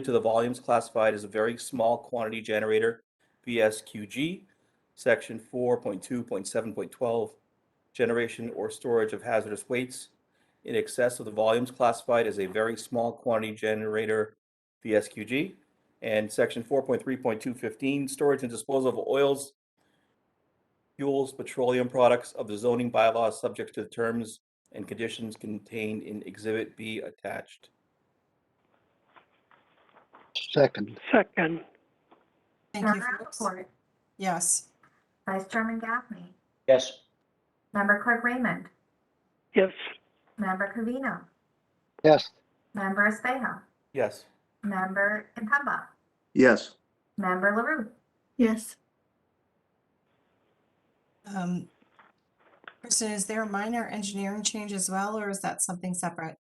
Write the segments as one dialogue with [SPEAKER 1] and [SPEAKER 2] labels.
[SPEAKER 1] to the volumes classified as a very small quantity generator, VSQG, section 4.2.7.12, generation or storage of hazardous weights in excess of the volumes classified as a very small quantity generator, VSQG, and section 4.3.215, storage and disposal of oils, fuels, petroleum products of the zoning bylaws subject to the terms and conditions contained in Exhibit B attached.
[SPEAKER 2] Second,
[SPEAKER 3] Second,
[SPEAKER 4] Thank you,
[SPEAKER 5] Member
[SPEAKER 4] Phyllis.
[SPEAKER 5] Rappaport,
[SPEAKER 4] Yes,
[SPEAKER 5] Vice Chairman Gaffney,
[SPEAKER 6] yes,
[SPEAKER 5] Member Clerk Raymond,
[SPEAKER 3] yes,
[SPEAKER 5] Member Covino,
[SPEAKER 2] yes,
[SPEAKER 5] Member Espejo,
[SPEAKER 1] Yes.
[SPEAKER 5] Member Impamba,
[SPEAKER 7] yes,
[SPEAKER 5] Member LaRue,
[SPEAKER 8] yes,
[SPEAKER 4] um, Kristen, is there a minor engineering change as well, or is that something separate?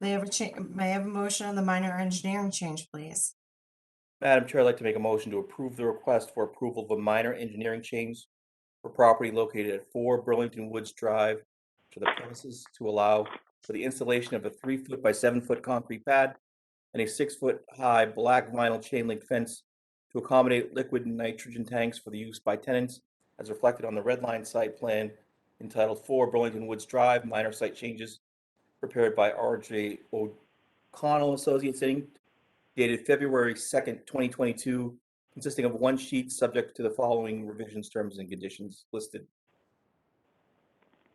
[SPEAKER 4] May I have a cha- may I have a motion on the minor engineering change, please?
[SPEAKER 1] Madam Chair, I'd like to make a motion to approve the request for approval of a minor engineering change for property located at 4 Burlington Woods Drive for the premises to allow for the installation of a 3-foot by 7-foot concrete pad and a 6-foot-high black vinyl chain link fence to accommodate liquid nitrogen tanks for the use by tenants as reflected on the red line site plan entitled 4 Burlington Woods Drive, minor site changes prepared by RJ O'Connell Associates Inc., dated February 2nd, 2022, consisting of one sheet subject to the following revisions, terms, and conditions listed.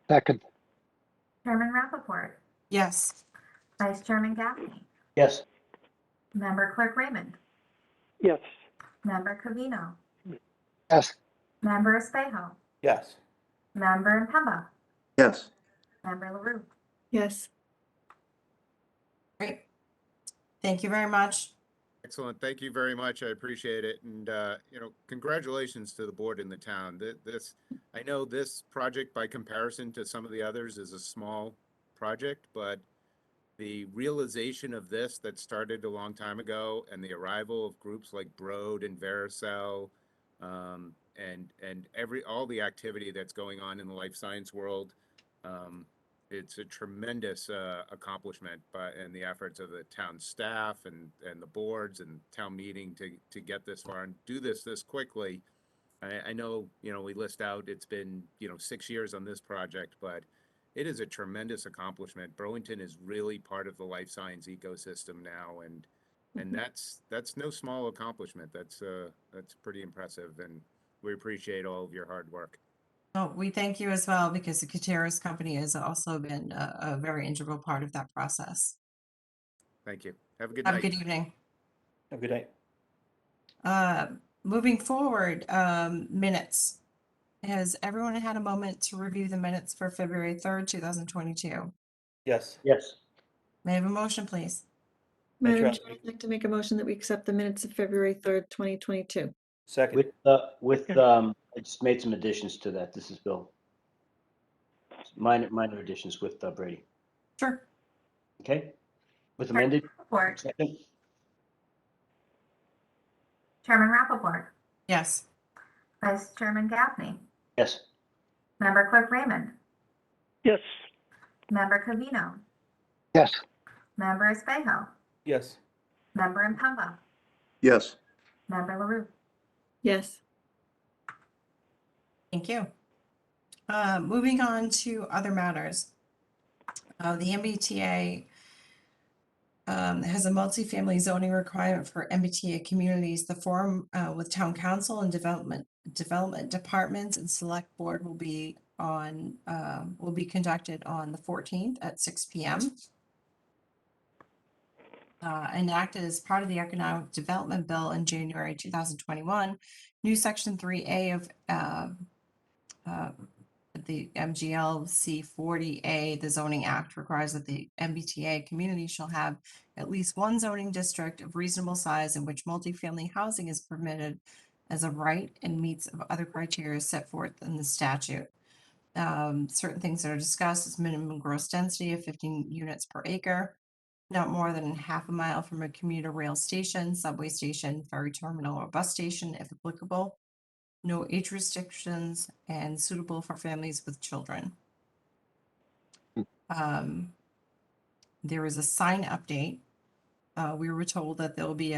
[SPEAKER 2] second,
[SPEAKER 5] Chairman Rappaport,
[SPEAKER 4] Yes,
[SPEAKER 5] Vice Chairman Gaffney,
[SPEAKER 6] yes,
[SPEAKER 5] Member Clerk Raymond,
[SPEAKER 3] yes,
[SPEAKER 5] Member Covino,
[SPEAKER 2] yes,
[SPEAKER 5] Member Espejo,
[SPEAKER 1] Yes.
[SPEAKER 5] Member Impamba,
[SPEAKER 7] yes,
[SPEAKER 5] Member LaRue,
[SPEAKER 8] yes.
[SPEAKER 4] great. Thank you very much.
[SPEAKER 9] Excellent. Thank you very much. I appreciate it. And, uh, you know, congratulations to the board and the town. Th- This, I know this project by comparison to some of the others is a small project, but the realization of this that started a long time ago and the arrival of groups like Broad and Vericel, um, and, and every, all the activity that's going on in the life science world, um, it's a tremendous uh, accomplishment by and the efforts of the town staff and and the boards and town meeting to to get this far and do this this quickly. I, I know you know we list out it's been you know six years on this project, but it is a tremendous accomplishment. Burlington is really part of the life science ecosystem now, and
[SPEAKER 4] Mm-hmm.
[SPEAKER 9] and that's that's no small accomplishment. That's uh that's pretty impressive, and we appreciate all of your hard work.
[SPEAKER 4] Oh, we thank you as well because the Kateras Company has also been a, a very integral part of that process.
[SPEAKER 9] Thank you. Have a good
[SPEAKER 4] Have a
[SPEAKER 9] night.
[SPEAKER 4] good evening.
[SPEAKER 1] Have a good night.
[SPEAKER 4] Uh, moving forward, um, minutes. Has everyone had a moment to review the minutes for February third, two thousand twenty-two?
[SPEAKER 1] Yes.
[SPEAKER 6] yes,
[SPEAKER 4] May I have a motion, please?
[SPEAKER 1] Madam
[SPEAKER 8] Madam
[SPEAKER 1] Chair,
[SPEAKER 8] Chair, I'd like to make a motion that we accept the minutes of February 3rd, 2022.
[SPEAKER 1] Second.
[SPEAKER 6] with, uh, with,
[SPEAKER 3] Yeah.
[SPEAKER 6] um, I just made some additions to that. This is Bill. Minor, minor additions with uh, Brady,
[SPEAKER 4] Sure.
[SPEAKER 6] okay? With amended,
[SPEAKER 5] Rappaport,
[SPEAKER 6] second,
[SPEAKER 5] Chairman Rappaport,
[SPEAKER 4] Yes.
[SPEAKER 5] Vice Chairman Gaffney,
[SPEAKER 6] yes,
[SPEAKER 5] Member Clerk Raymond,
[SPEAKER 3] yes,
[SPEAKER 5] Member Covino,
[SPEAKER 2] yes,
[SPEAKER 5] Member Espejo,
[SPEAKER 1] Yes.
[SPEAKER 5] Member Impamba,
[SPEAKER 7] yes,
[SPEAKER 5] Member LaRue,
[SPEAKER 8] Yes,
[SPEAKER 4] Thank you. Uh, moving on to other matters. Uh, the MBTA um, has a multifamily zoning requirement for MBTA communities. The forum uh, with town council and development development departments and select board will be on um, will be conducted on the 14th at 6 p.m. Uh, enacted as part of the Economic Development Bill in January 2021, new Section 3A of uh, uh, the MGLC 40A, the zoning act requires that the MBTA community shall have at least one zoning district of reasonable size in which multifamily housing is permitted as a right and meets of other criteria set forth in the statute. Um, certain things that are discussed is minimum gross density of fifteen units per acre, not more than half a mile from a commuter rail station, subway station, ferry terminal, or bus station if applicable no age restrictions, and suitable for families with children. Um, There is a sign update. Uh, we were told that there will be